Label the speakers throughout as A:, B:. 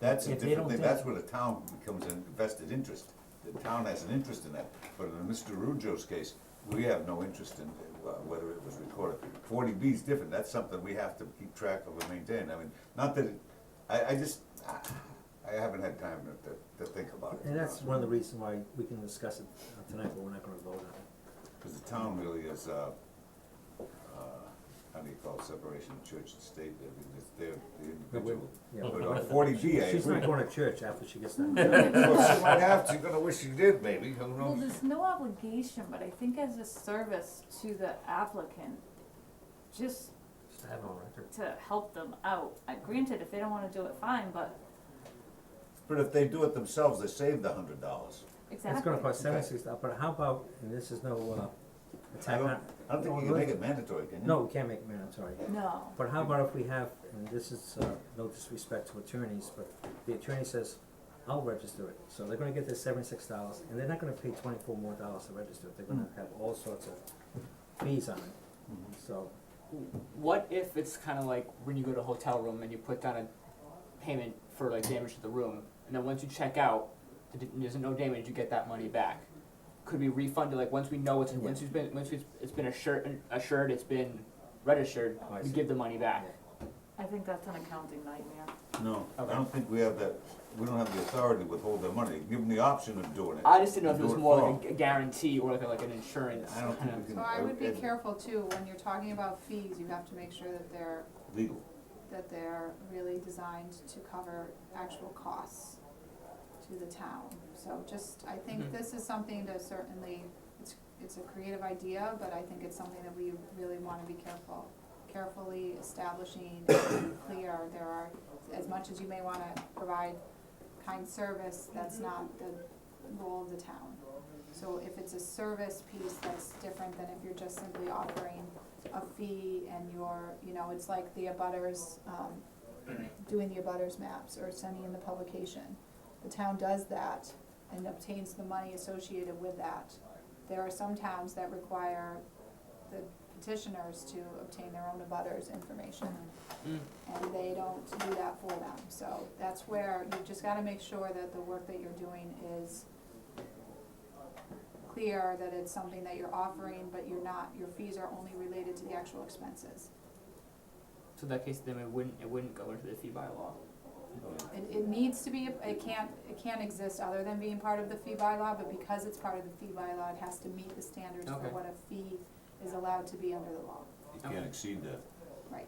A: That's a
B: If they
A: different
B: don't
A: thing,
B: think-
A: that's where the town becomes an vested interest. The town has an interest in that, but in Mr. Rujo's case, we have no interest in uh, whether it was recorded. Forty B is different, that's something we have to keep track of and maintain, I mean, not that, it- I, I just, I I haven't had time to, to, to think about it.
B: And that's one of the reasons why we can discuss it uh, tonight, but we're not gonna vote on it.
A: Because the town really is, uh, uh, how do you call it, separation of church and state, I mean, it's their, the individual.
B: yeah.
A: But on forty B, I
B: She's
A: agree.
B: not going to church after she gets
C: Mm-hmm.
B: done.
A: Well, she might have to, you're gonna wish you did, maybe, who
C: Well,
A: knows?
C: there's no obligation, but I think as a service to the applicant, just
D: Just to have it on record.
C: to help them out. Uh, Granted, if they don't wanna do it, fine, but
A: But if they do it themselves, they save the hundred dollars.
C: exactly.
B: It's gonna cost seven sixty, but how about, and this is no, uh,
A: I
B: attack
A: don't,
B: on.
A: I don't think you can make it mandatory, can you?
B: No, we can't make it mandatory.
C: No,
B: But how about if we have, and this is, uh, no disrespect to attorneys, but the attorney says, I'll register it, so they're gonna get their seventy-six dollars, and they're not gonna pay twenty-four more dollars to register it, they're gonna have all sorts of fees on it, so.
E: What if it's kind of like when you go to a hotel room and you put down a payment for like damage to the room, and then once you check out, th- there's no damage, you get that money back. Could be refunded like once we know it's once it's been once it's, it's been assured assured it's been registered,
B: Oh, I
E: we
B: see.
E: give the money back.
C: I think that's an accounting nightmare.
A: No, I
E: Okay.
A: don't think we have that, we don't have the authority to withhold their money, give them the option of doing it.
E: I just didn't know if it was
A: Do it
E: more
A: for
E: like a, guarantee or like a, like an insurance.
A: I don't think
E: kind of-
A: we can.
F: So I would be
A: it's
F: careful too, when you're talking about fees, you have to make sure that they're,
A: Legal,
F: that they're really designed to cover actual costs to the town. So just, I
E: Mhm.
F: think this is something to certainly, it's, it's a creative idea, but I think it's something that we really wanna be careful, carefully establishing, and clear, there are, as much as you may wanna provide kind service, that's not the role of the town. So if it's a service piece, that's different than if you're just simply offering a fee and you're, you know, it's like the abutters, um, doing the abutters maps or sending in the publication. The town does that and obtains the money associated with that. There are some towns that require the petitioners to obtain their own abutters information.
E: Mm.
F: And they don't do that for them, so that's where you've just gotta make sure that the work that you're doing is clear, that it's something that you're offering, but you're not, your fees are only related to the actual expenses.
E: So in that case, then it wouldn't it wouldn't go into the fee bylaw.
A: Oh,
F: It, it needs to be, it can't, it can't exist other than being part of the fee bylaw, but because it's part of the fee bylaw, it has to meet the standards for
E: Okay.
F: what a fee is allowed to be under the law,
A: you can't exceed that.
F: right?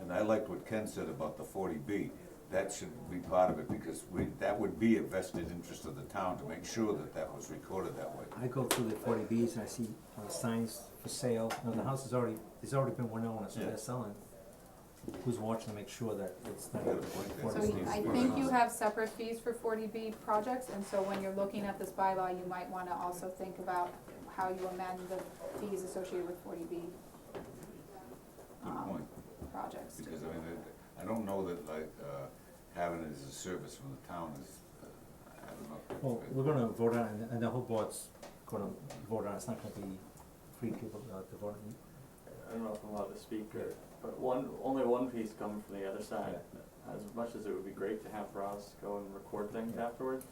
A: And I liked what Ken said about the forty B, that should be part of it, because we, that would be a vested interest of the town to make sure that that was recorded that way.
B: I go through the forty Bs and I see uh, signs for sale, now the house is already, there's already been one owner, so
A: Yeah.
B: they're selling. Who's watching to make sure that it's not.
A: You got a point there.
F: So
A: What it
F: you-
A: needs
F: I
A: to be.
F: think you have separate fees for forty B projects, and so when you're looking at this bylaw, you might wanna also think about how you amend the fees associated with forty B um,
A: Good point,
F: projects.
A: because I mean, it- I don't know that like, uh, having it as a service from the town is, uh, I don't know. if
B: Well,
A: that's-
B: we're gonna vote on, it, and the whole board's gonna vote on, it. it's not gonna be three people uh, to vote on.
G: I don't know if I'm allowed to speak, or, but one, only one piece come from the other side. As much as it would be great to have Ross go and record things
B: Yeah.
G: afterward,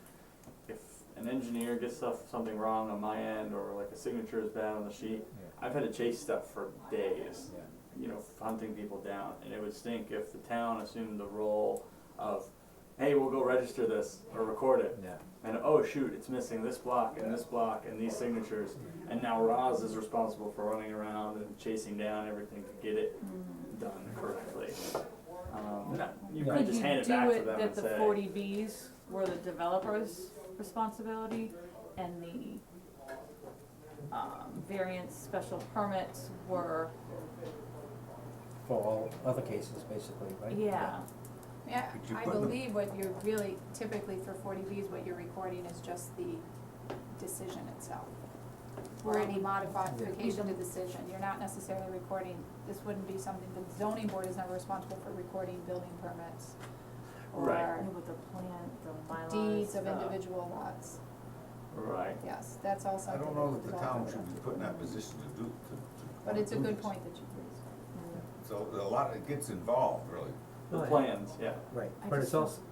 G: if an engineer gets stuff, something wrong on my end, or like a signature is bad on the sheet, I've had to chase stuff for days, you know, hunting people down, and it would stink if the town assumed the role of, hey, we'll go register this or record it,
B: Yeah,
G: and oh shoot, it's missing this block and this block and these signatures, and now Roz is responsible for running around and chasing down everything to get
C: Mm-hmm.
G: it done correctly. Um, no, you
B: Yeah.
G: could just hand it back to them
C: Could you
G: and
C: do it that the
G: say,
C: forty Bs were the developer's responsibility and the um variance special permits were,
B: for all other cases, basically, right?
C: yeah,
F: Yeah,
A: Could you
F: I
A: put them-
F: believe what you're really, typically for forty Bs, what you're recording is just the decision itself. Or any modification to decision, you're not necessarily recording, this wouldn't be something, the zoning board is never responsible for recording building permits
G: Right.
C: I
F: or
C: knew what the plan, the bylaws,
F: deeds of
C: the-
F: individual lots,
G: right,
F: yes, that's all
A: I
F: something.
A: don't know
F: that's
A: that the
F: involved
A: town
F: with
A: should
F: it.
A: be put in that position to do, to, to.
F: But it's a
A: do
F: good
A: this.
F: point that you raised.
C: Mm.
A: So a lot, it gets involved, really.
G: the
B: Right.
G: plans, yeah.
B: Right,
C: I
B: but
C: just
B: it's
C: don't-
B: also,